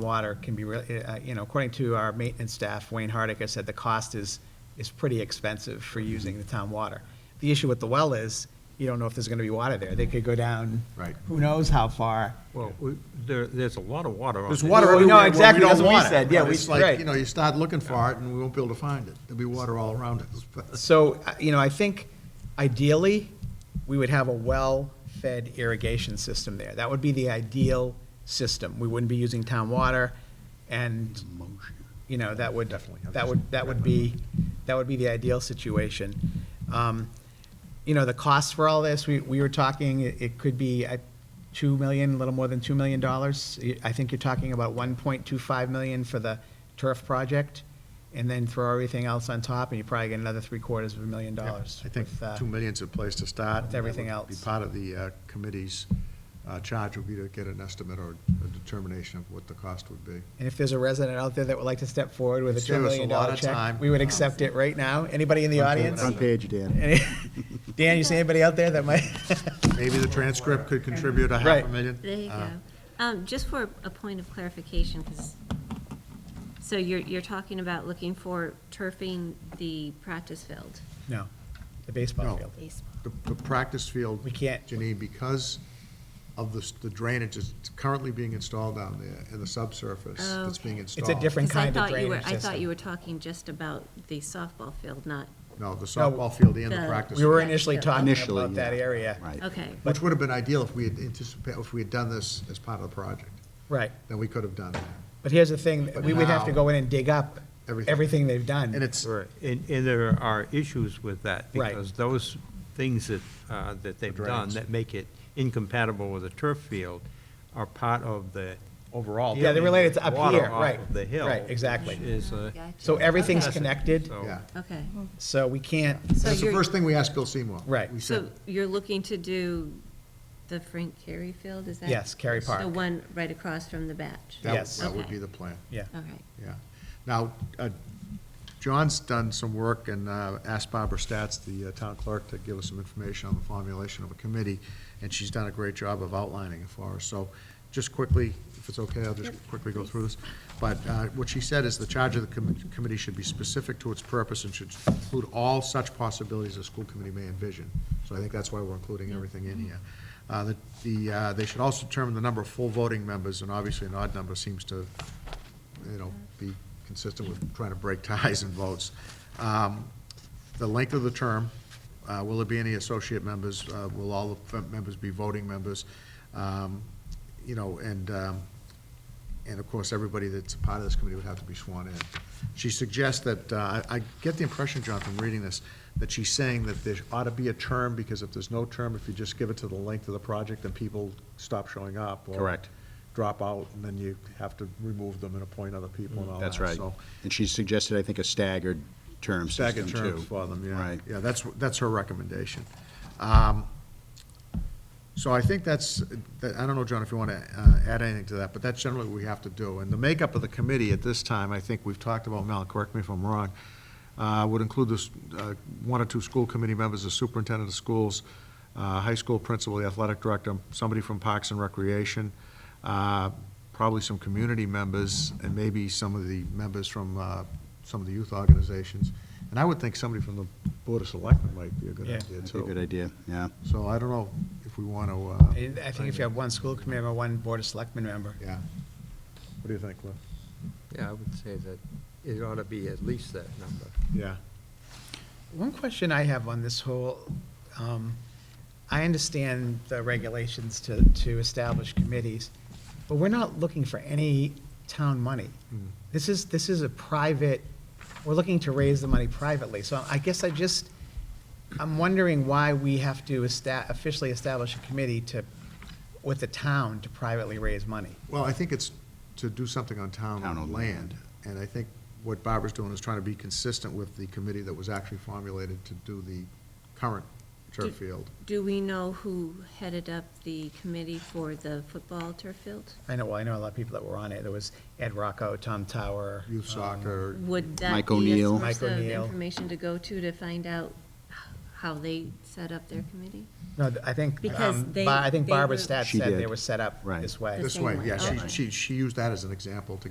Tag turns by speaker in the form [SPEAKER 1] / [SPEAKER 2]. [SPEAKER 1] water can be, really, uh, you know, according to our maintenance staff, Wayne Hardiker said the cost is, is pretty expensive for using the town water. The issue with the well is, you don't know if there's going to be water there. They could go down.
[SPEAKER 2] Right.
[SPEAKER 1] Who knows how far.
[SPEAKER 3] Well, we- there, there's a lot of water on
[SPEAKER 2] There's
[SPEAKER 3] this.
[SPEAKER 2] water
[SPEAKER 1] No,
[SPEAKER 2] everywhere. where we
[SPEAKER 1] exactly,
[SPEAKER 2] don't
[SPEAKER 1] that's what we
[SPEAKER 2] want it.
[SPEAKER 1] said, yeah,
[SPEAKER 2] But
[SPEAKER 1] we-
[SPEAKER 2] It's like,
[SPEAKER 1] right.
[SPEAKER 2] you know, you start looking for it and we won't be able to find it. There'll be water all around us.
[SPEAKER 1] So, uh, you know, I think ideally, we would have a well-fed irrigation system there. That would be the ideal system. We wouldn't be using town water, and, you know, that would,
[SPEAKER 2] Definitely.
[SPEAKER 1] that would, that would be, that would be the ideal situation. Um, You know, the cost for all this, we, we were talking, it it could be uh, two million, a little more than two million dollars. Y- I think you're talking about one point two five million for the turf project, and then throw everything else on top, and you probably get another three quarters of a million dollars.
[SPEAKER 2] I think
[SPEAKER 1] with, uh,
[SPEAKER 2] two million's a place to start.
[SPEAKER 1] with everything
[SPEAKER 2] That would Be
[SPEAKER 1] else.
[SPEAKER 2] part of the uh, committee's uh, charge would be to get an estimate or a determination of what the cost would be.
[SPEAKER 1] And if there's a resident out there that would like to step forward with a two
[SPEAKER 2] Save us a
[SPEAKER 1] million
[SPEAKER 2] lot
[SPEAKER 1] dollar
[SPEAKER 2] of
[SPEAKER 1] check,
[SPEAKER 2] time.
[SPEAKER 1] we would accept it right now. Anybody in the
[SPEAKER 2] Front page.
[SPEAKER 1] audience?
[SPEAKER 2] Front
[SPEAKER 4] page, Dan.
[SPEAKER 1] Any- Dan, you see anybody out there that might?
[SPEAKER 2] Maybe the transcript could contribute a half
[SPEAKER 1] Right.
[SPEAKER 2] a million.
[SPEAKER 5] There you
[SPEAKER 2] Uh,
[SPEAKER 5] go. Um, Just for a point of clarification, 'cause- so you're, you're talking about looking for turfing the practice field?
[SPEAKER 1] No, the baseball
[SPEAKER 2] No.
[SPEAKER 1] field.
[SPEAKER 2] The, the practice field.
[SPEAKER 1] We can't-
[SPEAKER 2] Janine, because of the, s- the drainage that's currently being installed down there and the subsurface that's being
[SPEAKER 5] Oh, Okay.
[SPEAKER 2] installed.
[SPEAKER 1] different-
[SPEAKER 5] Because I
[SPEAKER 1] kind of
[SPEAKER 5] thought you were,
[SPEAKER 1] drainage
[SPEAKER 5] I thought
[SPEAKER 1] system.
[SPEAKER 5] you were talking just about the softball field, not,
[SPEAKER 2] No, the softball field and the
[SPEAKER 5] the-
[SPEAKER 2] practice.
[SPEAKER 1] We were
[SPEAKER 2] field.
[SPEAKER 1] initially
[SPEAKER 5] Yeah.
[SPEAKER 1] talking
[SPEAKER 4] Initially,
[SPEAKER 1] about that
[SPEAKER 4] yeah.
[SPEAKER 1] area.
[SPEAKER 2] Uh,
[SPEAKER 4] Right.
[SPEAKER 5] okay.
[SPEAKER 2] Which would have been ideal if we had anticipated, if we had done this as part of the project,
[SPEAKER 1] Right.
[SPEAKER 2] then we could have done it.
[SPEAKER 1] But here's the thing,
[SPEAKER 2] But
[SPEAKER 1] we would have to
[SPEAKER 2] now-
[SPEAKER 1] go in and dig up
[SPEAKER 2] Everything.
[SPEAKER 1] everything they've done.
[SPEAKER 2] And it's,
[SPEAKER 3] Right, And, and there are issues with that.
[SPEAKER 1] Right.
[SPEAKER 3] Because those things that, uh, that they've done
[SPEAKER 2] drains.
[SPEAKER 3] that make it incompatible with a turf field are part of the overall.
[SPEAKER 1] Yeah, they're related to up
[SPEAKER 3] water
[SPEAKER 1] here,
[SPEAKER 3] off
[SPEAKER 1] right,
[SPEAKER 3] of the hill.
[SPEAKER 1] right, exactly.
[SPEAKER 3] which is
[SPEAKER 2] uh,
[SPEAKER 3] a-
[SPEAKER 1] So everything's
[SPEAKER 3] Okay.
[SPEAKER 1] connected,
[SPEAKER 3] so-
[SPEAKER 2] yeah.
[SPEAKER 5] Okay.
[SPEAKER 1] so we can't,
[SPEAKER 5] So
[SPEAKER 2] That's the
[SPEAKER 5] you're,
[SPEAKER 2] first thing we asked Bill Seymour.
[SPEAKER 1] Right.
[SPEAKER 2] We
[SPEAKER 5] so
[SPEAKER 2] said,
[SPEAKER 5] you're looking to do the Frank Carey Field, is that?
[SPEAKER 1] Yes, Cary
[SPEAKER 5] The
[SPEAKER 1] Park.
[SPEAKER 5] one right across from the batch?
[SPEAKER 2] that,
[SPEAKER 1] Yes.
[SPEAKER 2] that would be
[SPEAKER 5] Okay.
[SPEAKER 2] the plan,
[SPEAKER 1] yeah.
[SPEAKER 5] All right.
[SPEAKER 2] yeah. Now, uh, John's done some work and uh, asked Barbara Stats, the uh, town clerk, to give us some information on the formulation of a committee, and she's done a great job of outlining it for us. So just quickly, if it's okay, I'll just quickly go through this. But uh, what she said is the charge of the commi- committee should be specific to its purpose and should include all such possibilities a school committee may envision. So I think that's why we're including everything in here. Uh, The, the, uh, they should also determine the number of full voting members, and obviously an odd number seems to, you know, be consistent with trying to break ties and votes. Um, The length of the term, uh, will there be any associate members? Uh, Will all the members be voting members? Um, You know, and, um, and of course, everybody that's a part of this committee would have to be sworn in. She suggests that, uh, I I get the impression, John, from reading this, that she's saying that there ought to be a term, because if there's no term, if you just give it to the length of the project, then people stop showing up. or
[SPEAKER 4] Correct.
[SPEAKER 2] Drop out, and then you have to remove them and appoint other people and all that.
[SPEAKER 4] That's right.
[SPEAKER 2] So
[SPEAKER 4] And she suggested, I think, a staggered term system,
[SPEAKER 2] staggered
[SPEAKER 4] too.
[SPEAKER 2] terms for them, yeah.
[SPEAKER 4] Right.
[SPEAKER 2] Yeah, that's, that's her recommendation. Um, So I think that's, that- I don't know, John, if you want to add anything to that, but that's generally what we have to do. And the makeup of the committee at this time, I think we've talked about, Mel, correct me if I'm wrong, uh, would include this, uh, one or two school committee members, the superintendent of schools, uh, high school principal, the athletic director, somebody from Parks and Recreation, uh, probably some community members, and maybe some of the members from uh, some of the youth organizations. And I would think somebody from the Board of Selectmen might be a good
[SPEAKER 1] Yeah.
[SPEAKER 2] idea,
[SPEAKER 4] That'd be a
[SPEAKER 2] too.
[SPEAKER 4] good idea, yeah.
[SPEAKER 2] So I don't know if we uh, want to,
[SPEAKER 1] I I think if you have one school committee member, one board of selectmen member,
[SPEAKER 2] yeah. What do you think, Cliff?
[SPEAKER 6] Yeah, I would say that it ought to be at least that number.
[SPEAKER 2] Yeah.
[SPEAKER 1] One question I have on this whole, um, I understand the regulations to, to establish committees, but we're not looking for any town money.
[SPEAKER 2] Hmm.
[SPEAKER 1] This is, this is a private, we're looking to raise the money privately, so I guess I just, I'm wondering why we have to esta- officially establish a committee to, with the town to privately raise money.
[SPEAKER 2] Well, I think it's to do something on town
[SPEAKER 4] Town-owned
[SPEAKER 2] land, and I think what Barbara's doing is trying to be consistent with the committee that was actually formulated to do the current turf
[SPEAKER 5] Did-
[SPEAKER 2] field.
[SPEAKER 5] Do we know who headed up the committee for the football turf field?
[SPEAKER 1] I know, well, I know a lot of people that were on it, there was Ed Rocco, Tom Tower.
[SPEAKER 2] Youth
[SPEAKER 5] Oh.
[SPEAKER 1] um,
[SPEAKER 2] soccer,
[SPEAKER 5] Would that
[SPEAKER 4] Mike
[SPEAKER 5] be a
[SPEAKER 4] O'Neill.
[SPEAKER 1] Mike
[SPEAKER 5] source of
[SPEAKER 1] O'Neill.
[SPEAKER 5] information to go to to find out how they set up their committee?
[SPEAKER 1] No, th- I think,
[SPEAKER 5] Because
[SPEAKER 1] um,
[SPEAKER 5] they-
[SPEAKER 1] Ba- I think
[SPEAKER 5] they
[SPEAKER 1] Barbara
[SPEAKER 5] were-
[SPEAKER 1] Stat
[SPEAKER 4] She
[SPEAKER 1] said they
[SPEAKER 4] did.
[SPEAKER 1] were set up
[SPEAKER 4] Right.
[SPEAKER 1] this way.
[SPEAKER 5] The
[SPEAKER 2] This
[SPEAKER 5] same
[SPEAKER 2] way,
[SPEAKER 5] way,
[SPEAKER 2] yeah, she,
[SPEAKER 5] okay.
[SPEAKER 2] she, she used that as an example to